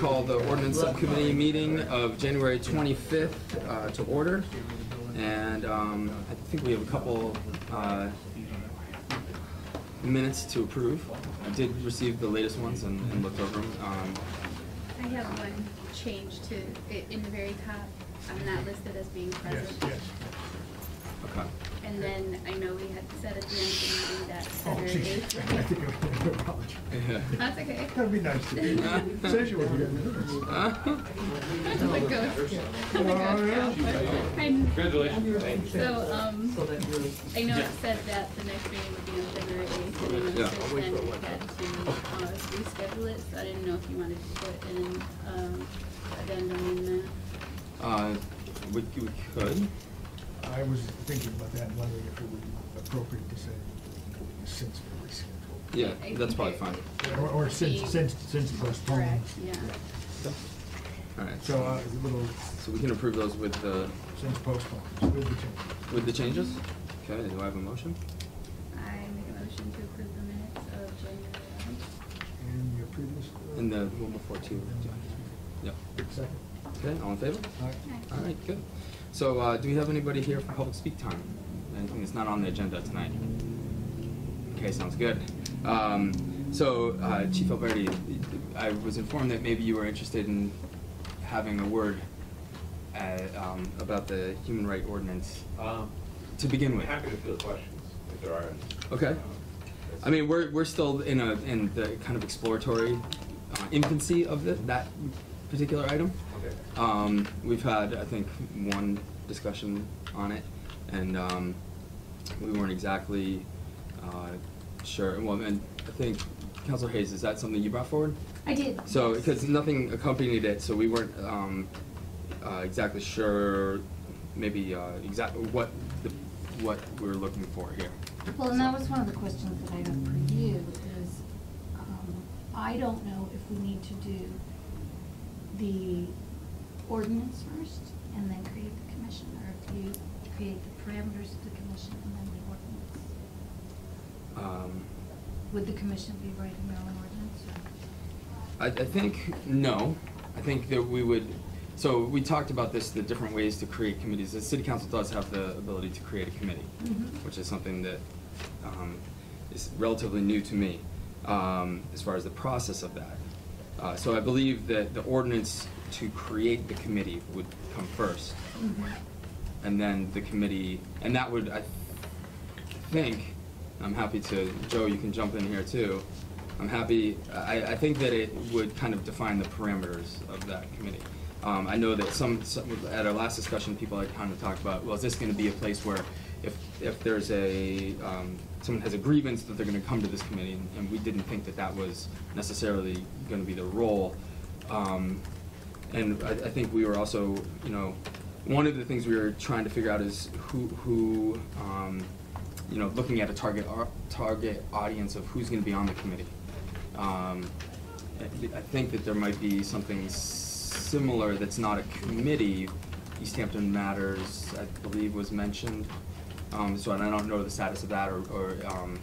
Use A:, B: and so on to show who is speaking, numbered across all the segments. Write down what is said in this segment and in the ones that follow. A: call the ordinance subcommittee meeting of January 25th uh, to order. And um, I think we have a couple uh, minutes to approve. I did receive the latest ones and and looked over them. Um,
B: I have one change to, i- in the very top, I'm not listed as being present.
A: Okay.
B: And then I know we had said at the end of the meeting that
C: Oh,
B: Senator
C: geez.
B: Gates.
C: I think I'm gonna apologize.
B: That's okay.
C: That'd be nice to do. Says you were here.
B: I'm a ghost. I'm a
C: Oh,
B: ghost
C: yeah.
B: now. And
D: Congratulations.
B: so, um,
D: So that really,
B: I know it said that the next meeting would be on February eighth, and I know
A: Yeah.
B: since then we had to, uh, reschedule it, so I didn't know if you wanted to put an, um, addendum in the,
C: Oh.
A: Uh, We we could.
C: I was thinking about that, and wondering if it would be appropriate to say since we rescheduled.
A: Yeah, that's probably fine.
C: Or, or since,
B: Be-
C: since, since postponed.
B: correct, yeah.
A: All right.
C: So, uh, a little,
A: So we can approve those with the,
C: since postponed, with the change.
A: with the changes? Okay, do I have a motion?
B: I make a motion to approve the minutes of January eleventh.
C: And your previous. uh,
A: And the one before two. Yeah.
C: Second.
A: Okay, all in favor?
C: All right.
A: All right, good. So, uh, do we have anybody here for public speak time? Anything that's not on the agenda tonight? Okay, sounds good. Um, so, uh, Chief Alberti, I was informed that maybe you were interested in having a word uh, um, about the human right ordinance
E: Um,
A: to begin
E: I'm
A: with.
E: happy to field questions if there are. any.
A: Okay.
E: Um,
A: I mean, we're, we're still in a, in the kind of exploratory uh, infancy of thi- that particular item.
E: Okay.
A: Um, we've had, I think, one discussion on it, and, um, we weren't exactly, uh, sure, well, and I think, Counselor Hayes, is that something you brought forward?
F: I did.
A: So, because nothing accompanied it, so we weren't, um, uh, exactly sure, maybe, uh, exact, what, the, what we were looking for here.
F: Well, and that was one of the questions that I have for you is, um, I don't know if we need to do the ordinance first and then create the commission, or if you create the parameters of the commission and then the ordinance.
A: Um,
F: Would the commission be writing their own ordinance or?
A: I, I think, no. I think that we would, so we talked about this, the different ways to create committees. The city council does have the ability to create a committee,
B: Mm-hmm.
F: Mhm.
A: which is something that um, is relatively new to me um, as far as the process of that. Uh, so I believe that the ordinance to create the committee would come first and then the committee, and that would, I think, I'm happy to, Joe, you can jump in here too. I'm happy, I, I think that it would kind of define the parameters of that committee. Um, I know that some, some, at our last discussion, people had kind of talked about, well, is this gonna be a place where if, if there's a, um, someone has a grievance, that they're gonna come to this committee, and, and we didn't think that that was necessarily gonna be the role. Um, and I, I think we were also, you know, one of the things we were trying to figure out is who, who, um, you know, looking at a target, au- target audience of who's gonna be on the committee. Um, I thi- I think that there might be something similar that's not a committee, East Hampton Matters, I believe was mentioned. Um, so I don't know the status of that or, or, um,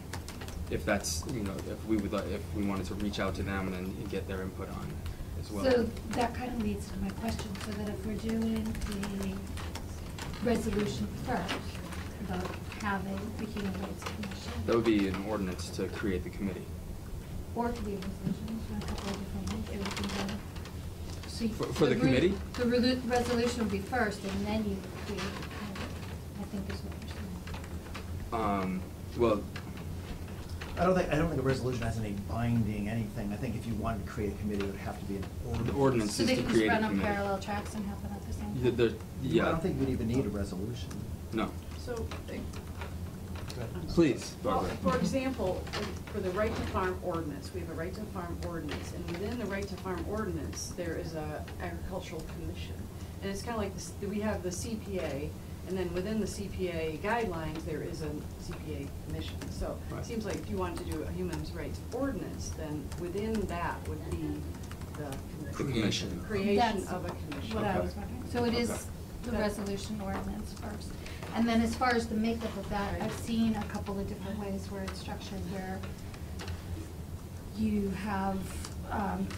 A: if that's, you know, if we would, like- if we wanted to reach out to them and, and get their input on it as well.
F: So that kind of leads to my question, so that if we're doing the resolution first about having the human rights commission.
A: That would be an ordinance to create the committee.
F: Or it could be a resolution, so a couple of different ones, it would be done. So you-
A: For- for the
F: re-
A: committee?
F: The relu- resolution would be first, and then you would create the committee, I think is what you're saying.
A: Um, well,
G: I don't think, I don't think a resolution has any binding anything. I think if you wanted to create a committee, it would have to be an ordinance.
A: The ordinance
F: So
A: is
F: they
A: to
F: can
A: create
F: just
A: a
F: run on
A: committee.
F: parallel tracks and happen at the same time?
A: the, the, yeah.
G: I don't think we'd even need a resolution.
A: No.
H: So, eh,
A: Please,
H: well,
A: Barbara.
H: for example, for the right to farm ordinance, we have a right to farm ordinance, and within the right to farm ordinance, there is a agricultural commission. And it's kind of like, this- we have the CPA, and then within the CPA guidelines, there is a CPA commission. So
A: Right.
H: it seems like if you wanted to do a human rights ordinance, then within that would be the
A: The commission.
H: Creation of a
F: That's
H: commission.
F: what I
A: Okay.
F: was wondering. So it
A: Okay.
F: is the resolution ordinance first. And then as far as the makeup of that, I've seen a couple of different ways where it's structured, where you have, um,